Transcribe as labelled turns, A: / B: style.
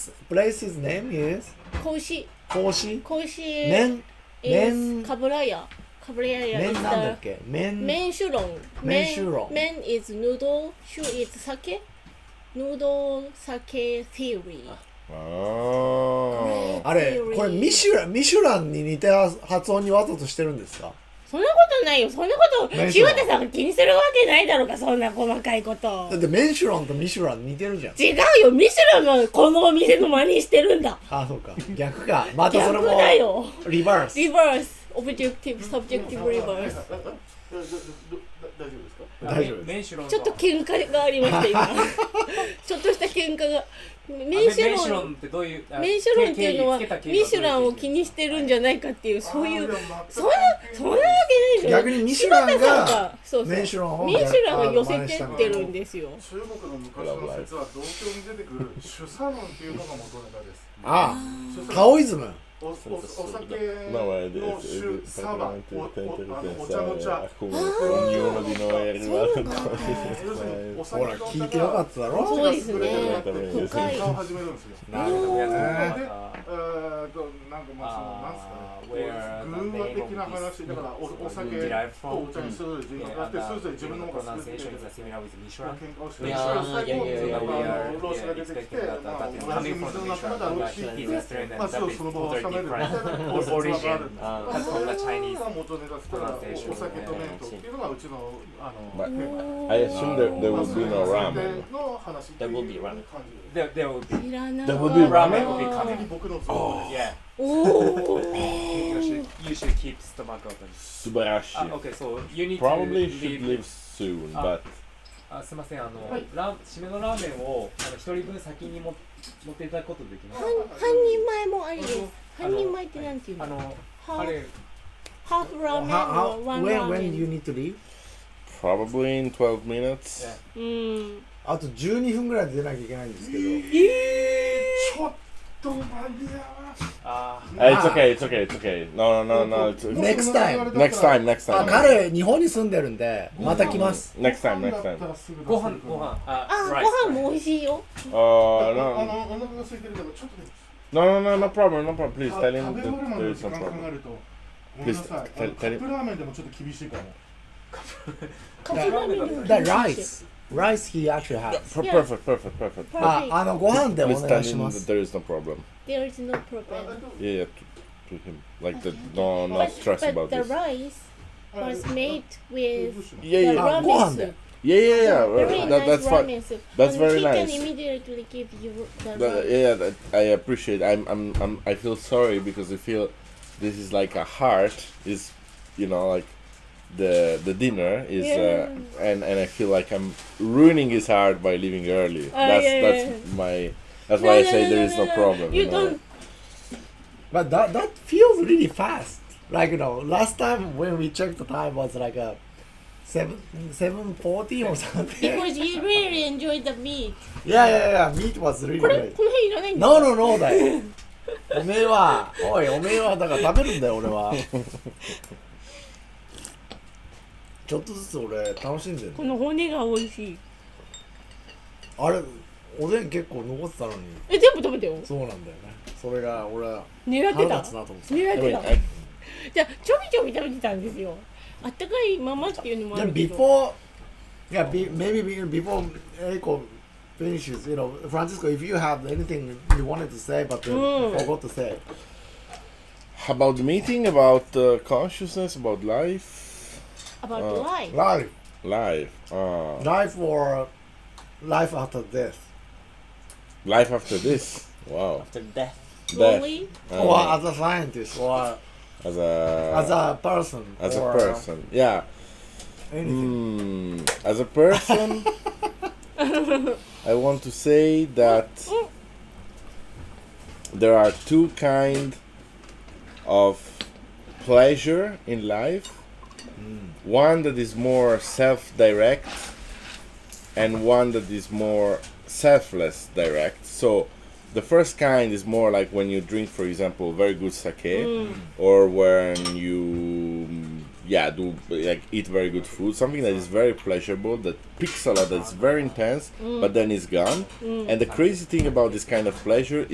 A: Place's name is
B: 小石
A: 格子
B: 小石
A: 麺
B: is
A: 麺
B: カブラヤカブラヤ
A: 麺な
B: is
A: んだっ
B: the
A: け麺
B: 麺シュロン
A: 麺シュロン
B: 麺 is noodle シュ is 酒 noodle 酒 theory
C: ああ。
A: あれ
B: theory
A: これミシュランミシュランに似た発音にわざとしてるんですか
B: そんなことないよそんなこと
A: 麺シュ
B: 柴
A: ロン
B: 田さんが気にするわけないだろうかそんな細かいこと
A: だってメンシュランとミシュラン似てるじゃん
B: 違うよミシュランのこのお店の真似してるんだ
A: あそう か逆かまたそれ
B: 逆
A: も
B: だよ
A: リバース
B: リバースオブジェクティブサブジェクティブリバース
D: 大丈夫ですか
A: 大丈夫です
C: メンシュロン
B: ちょっと喧嘩がありました今ちょっとした喧嘩がメ
C: メ
B: ン
C: ン
B: シ
C: シ
B: ュ
C: ュ
B: ロ
C: ロ
B: ン
C: ンってどういうあ
B: メンシュロンっていうのは
C: 定義つけた経緯
B: ミシュランを気にしてるんじゃないかっていうそういうそんなそんなわけないでしょ
A: 逆にミシュラン
B: 柴田さん
A: が
B: そうそう
A: メンシュランを
B: メンシュランを寄せてってるんですよ
D: 中国の昔の説は同居に出てくる主サノンっていうのが元ネタです
A: ああタオイズム
D: おおお酒の主サバおおあのお茶の茶
E: Ognuno di noi è arrivato
D: Eh, 要
E: con
D: す
A: ほ
D: るに
A: ら
D: お酒
A: 聞いてよかっただろ
B: そうですね
D: 喧
B: 深い
D: 嘩を始めるんですよ
A: なるほどね
D: でえーとなんかまあそのなんすかね、こう群馬的な話だからおお酒とお茶にする人があってそれぞれ自分のものが好きで喧嘩をしてる最後になんか老子が出てきてまあ同じ水の仲間だろうしまあそその場を収めるみたいなお説はあるんですが元ネタですからお酒と麺とっていうのがうちのあの
E: I assume there, there
D: まあ
E: will
D: そ
E: be
D: れ
E: no
D: が前提
E: ramen.
D: の話っていう感じで
B: いらな
E: That would be
B: かっ
E: ramen
D: 完全に僕の像
B: おお
C: Ah,
E: Subarashi. Probably should leave soon, but
C: あすみませんあの、ラー締めのラーメンをあの一人分先にも持っていただくことできます
B: 半半人前もありです
C: あの
B: 半人前ってなんていう
C: あ
B: の
C: の
B: ハ
C: あ
B: ー
C: れ
B: フハーフラーメン
A: How-
B: のワ
A: how-
B: ン
A: when
B: ラ
A: when
B: ーメ
A: you
B: ン
A: need to leave?
E: probably in 12 minutes.
B: うん
A: あと12分ぐらいで出なきゃいけないんですけど
D: ちょっとマニア
C: あ
E: Eh, it's okay, it's okay, it's okay. No, no, no, no. It's, it's-
A: Next Ah, time
E: next time, next
A: あ
E: time.
A: 彼日本に住んでるんでまた来ます
E: Next time, next time.
C: ご飯ご飯あ
B: あ
C: ライス
B: ご飯も美味しいよ
D: あ
E: Oh, no.
D: のお腹が空いてるからちょっとね
E: No, no, no, no problem, no problem. Please
D: あ
E: tell
D: 食べ
E: him
D: 終わるま
E: that
D: での
E: there is
D: 時
E: no
D: 間考
E: problem.
D: えるとごめんなさい
E: Please
D: あの
E: tell-
D: カ
E: tell-
D: ップラーメンでもちょっと厳しいかも
B: カップラーメンの美味しい
A: The rice rice he actually has
E: Per- Perfect, perfect, perfect.
A: ああのご飯でお
E: Please tell
A: 願いし
E: him
A: ま
E: that
A: す
E: there is no problem.
B: There is no problem.
E: Yeah, yeah, to, to him. Like, that. no, no stress
B: but
E: about
B: the
E: this.
B: rice
D: あ
B: was made
D: えどう
B: with
D: しよう
E: Yeah,
B: the
E: yeah,
A: あご
B: ramen
A: 飯で
B: soup.
E: yeah, yeah, yeah. well,
B: Very
E: that,
B: nice
E: that's fine.
B: ramen soup.
E: That's
B: And
E: very
B: he
E: nice.
B: can immediately give you the
E: The-
B: rice.
E: yeah, that, I appreciate. I'm, I'm, I'm, I feel sorry because I feel this is like a heart is, you know, like the the dinner is,
B: Yeah.
E: uh, and and I feel like I'm ruining his heart by leaving early. that's
B: Ah, yeah,
E: that's
B: yeah.
E: my. That's why I say there is no, problem.
B: You
E: know.
B: don't.
A: But that that feels really fast. Like you know, last time when we checked the time was like a seven seven forty or something.
B: Because you really enjoy the meat.
A: yeah, yeah, yeah. Meat was really
B: これ
A: good.
B: この辺いらないんだ。
A: No, no, no だよ。おめえは、おい、おめえはだから食べるんだよ、俺は。ちょっとずつ俺楽しんでる。
B: この骨が美味しい。
A: あれ、おでん結構残ってたのに、
B: え全部食べたよ。
A: そうなんだよね。それが俺は
B: 狙って
A: 腹
B: た
A: 立つ。なと思って
B: 狙
E: I
B: って
E: mean,
B: た。
E: I,
B: じゃあちょびちょび食べてたんですよ。あったかいままっていうのもあ
A: Yeah,
B: るけど。
A: before, yeah, be, maybe be- before Erico finishes, you know, Francisco, if you have anything you wanted to say but uh,
B: Mm.
A: forgot to say,
E: about the meeting, about uh, consciousness, about life,
B: About life.
A: life,
E: life, uh,
A: life or life after death,
E: life after this. Wow.
C: After death
E: Death.
B: Lonely.
E: Uh,
A: or as a scientist, or
E: as a
A: as a person,
E: as a
A: or
E: person. Yeah.
A: anything.
E: Mm, as a person, I want to say that there are two kind of pleasure in life. One that is more self-direct, and one that is more selfless direct. So, the first kind is more like when you drink, for example, very good sake, or when you, mm, yeah, do like eat very good food, something that is very pleasurable, that picks a lot, that's very intense, but then it's gone. And the crazy thing about this kind of pleasure